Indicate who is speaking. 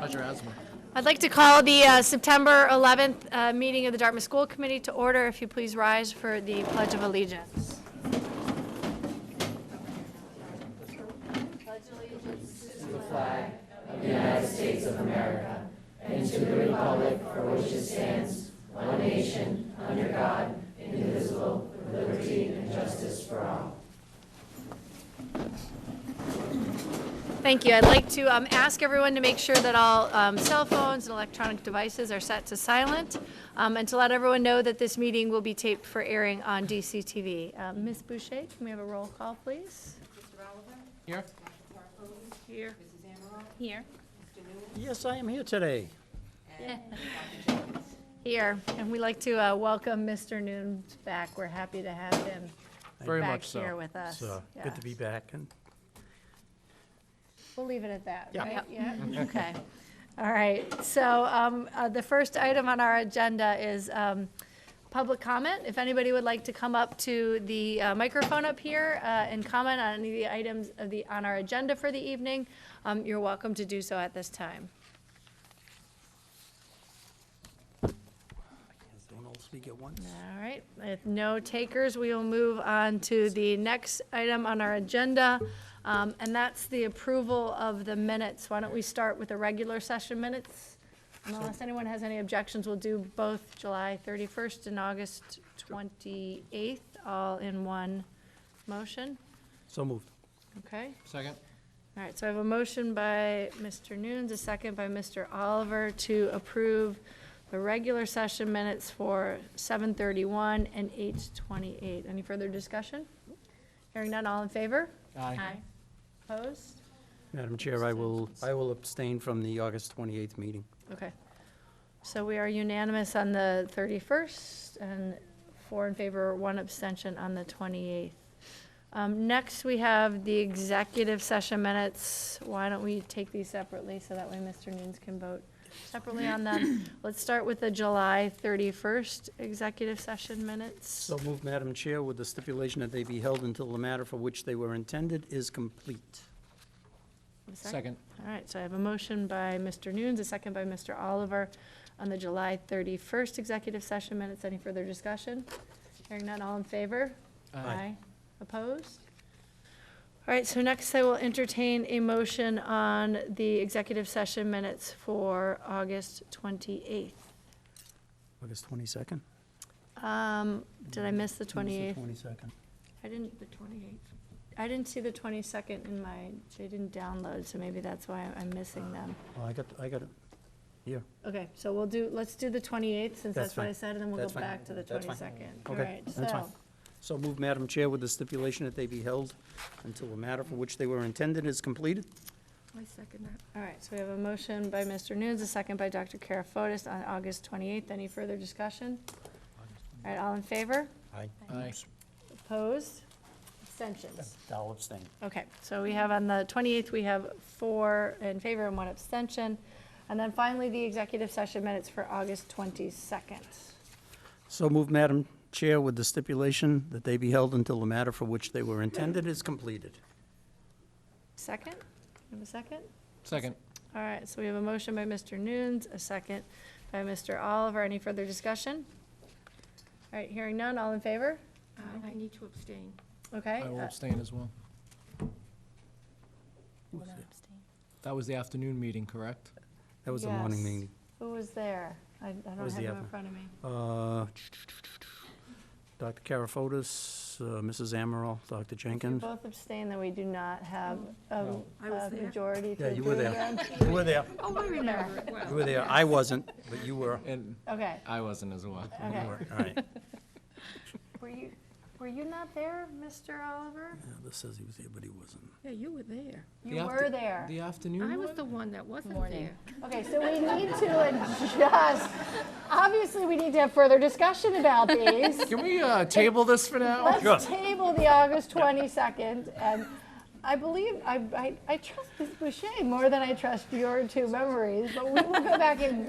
Speaker 1: Roger Asma.
Speaker 2: I'd like to call the uh, September 11th uh, meeting of the Dartmouth School Committee to order. If you please rise for the Pledge of Allegiance. Thank you. I'd like to um, ask everyone to make sure that all um, cell phones and electronic devices are set to silent, um, and to let everyone know that this meeting will be taped for airing on DCTV. Uh, Ms. Boucher, can we have a roll call, please?
Speaker 1: Here?
Speaker 2: Here.
Speaker 3: Here.
Speaker 1: Yes, I am here today.
Speaker 2: Here, and we'd like to uh, welcome Mr. Noon back. We're happy to have him
Speaker 1: Very
Speaker 2: back
Speaker 1: much so.
Speaker 2: here with us.
Speaker 4: So, good to be
Speaker 2: Yes.
Speaker 4: back, and
Speaker 2: We'll leave it at that,
Speaker 1: Yeah.
Speaker 2: right? Yeah, okay. All right, so um, uh, the first item on our agenda is um, public comment. If anybody would like to come up to the uh, microphone up here uh, and comment on any of the items of the, on our agenda for the evening, um, you're welcome to do so at this time.
Speaker 4: don't all speak at once.
Speaker 2: All right, if no takers, we will move on to the next item on our agenda, um, and that's the approval of the minutes. Why don't we start with the regular session minutes? And Unless anyone has any objections, we'll do both July 31st and August 28th, all in one motion,
Speaker 4: So moved.
Speaker 2: okay?
Speaker 1: Second?
Speaker 2: All right, so I have a motion by Mr. Nunes, a second by Mr. Oliver to approve the regular session minutes for 7:31 and 8:28. Any further discussion? Hearing none, all in favor?
Speaker 1: Aye.
Speaker 2: Opposed?
Speaker 4: Madam Chair, I will, I will abstain from the August 28th meeting.
Speaker 2: Okay. So we are unanimous on the 31st and four in favor, one abstention on the 28th. Um, Next, we have the executive session minutes. Why don't we take these separately so that way Mr. Nunes can vote separately on them? Let's start with the July 31st executive session minutes.
Speaker 4: So moved, Madam Chair, with the stipulation that they be held until the matter for which they were intended is complete.
Speaker 2: A sec?
Speaker 1: Second?
Speaker 2: All right, so I have a motion by Mr. Nunes, a second by Mr. Oliver on the July 31st executive session minutes. Any further discussion? Hearing none, all in favor? Opposed? All right, so next I will entertain a motion on the executive session minutes for August 28th.
Speaker 4: August 22nd?
Speaker 2: Um, Did I miss the
Speaker 4: It was the
Speaker 2: 28th?
Speaker 4: 22nd.
Speaker 2: I didn't, the 28th. I didn't see the 22nd in my, they didn't download, so maybe that's why I'm missing them.
Speaker 4: Oh, I got, I got it. Here.
Speaker 2: Okay, so we'll do, let's do the 28th, since
Speaker 4: That's
Speaker 2: that's what I
Speaker 4: fine.
Speaker 2: said, and then we'll
Speaker 4: That's
Speaker 2: go
Speaker 4: fine.
Speaker 2: back to the
Speaker 4: That's fine.
Speaker 2: 22nd. All
Speaker 4: Okay,
Speaker 2: right,
Speaker 4: that's fine.
Speaker 2: so,
Speaker 4: So moved, Madam Chair, with the stipulation that they be held until the matter for which they were intended is completed.
Speaker 5: I second that.
Speaker 2: all right, so we have a motion by Mr. Nunes, a second by Dr. Karafotis on August 28th. Any further discussion? All right, all in favor?
Speaker 4: Aye.
Speaker 1: Aye.
Speaker 2: Opposed? Abstentions?
Speaker 4: I'll abstain.
Speaker 2: Okay, so we have on the 28th, we have four in favor and one abstention. And then finally, the executive session minutes for August 22nd.
Speaker 4: So moved, Madam Chair, with the stipulation that they be held until the matter for which they were intended is completed.
Speaker 2: Second? You have a second?
Speaker 1: Second?
Speaker 2: All right, so we have a motion by Mr. Nunes, a second by Mr. Oliver. Any further discussion? All right, hearing none, all in favor?
Speaker 5: Uh, I need to abstain.
Speaker 2: Okay.
Speaker 1: I will
Speaker 2: uh,
Speaker 1: abstain as well. That was the afternoon meeting, correct?
Speaker 4: That was the morning
Speaker 2: Yes.
Speaker 4: meeting.
Speaker 2: Who was there? I I don't
Speaker 4: was
Speaker 2: have
Speaker 4: the
Speaker 2: him in
Speaker 4: other?
Speaker 2: front of me.
Speaker 4: Uh, Dr. Karafotis, uh, Mrs. Amaral, Dr. Jenkins.
Speaker 2: Both abstain, then we do not have a
Speaker 5: I was
Speaker 2: a
Speaker 5: there.
Speaker 2: majority. to
Speaker 4: Yeah, you were
Speaker 2: approve
Speaker 4: there.
Speaker 2: them.
Speaker 4: You were there.
Speaker 5: Oh, I remember it
Speaker 4: You
Speaker 5: well.
Speaker 4: were there. I wasn't, but you were.
Speaker 1: And
Speaker 2: Okay,
Speaker 1: I wasn't as well.
Speaker 4: You
Speaker 2: okay.
Speaker 4: were. All right.
Speaker 2: Were you, were you not there, Mr. Oliver?
Speaker 4: Yeah, This says he was there, but he wasn't.
Speaker 5: Yeah, you were there.
Speaker 1: The
Speaker 2: You
Speaker 1: after-
Speaker 2: were there.
Speaker 1: The
Speaker 5: I
Speaker 1: afternoon
Speaker 5: was
Speaker 1: one?
Speaker 5: the one that wasn't
Speaker 2: Morning.
Speaker 5: there.
Speaker 2: Okay, so we need to adjust. Obviously, we need to have further discussion about these.
Speaker 1: Can we uh, table this for now?
Speaker 2: Let's table the August 22nd, and I believe, I, I, I trust Ms. Boucher more than I trust your two memories, but we will go back and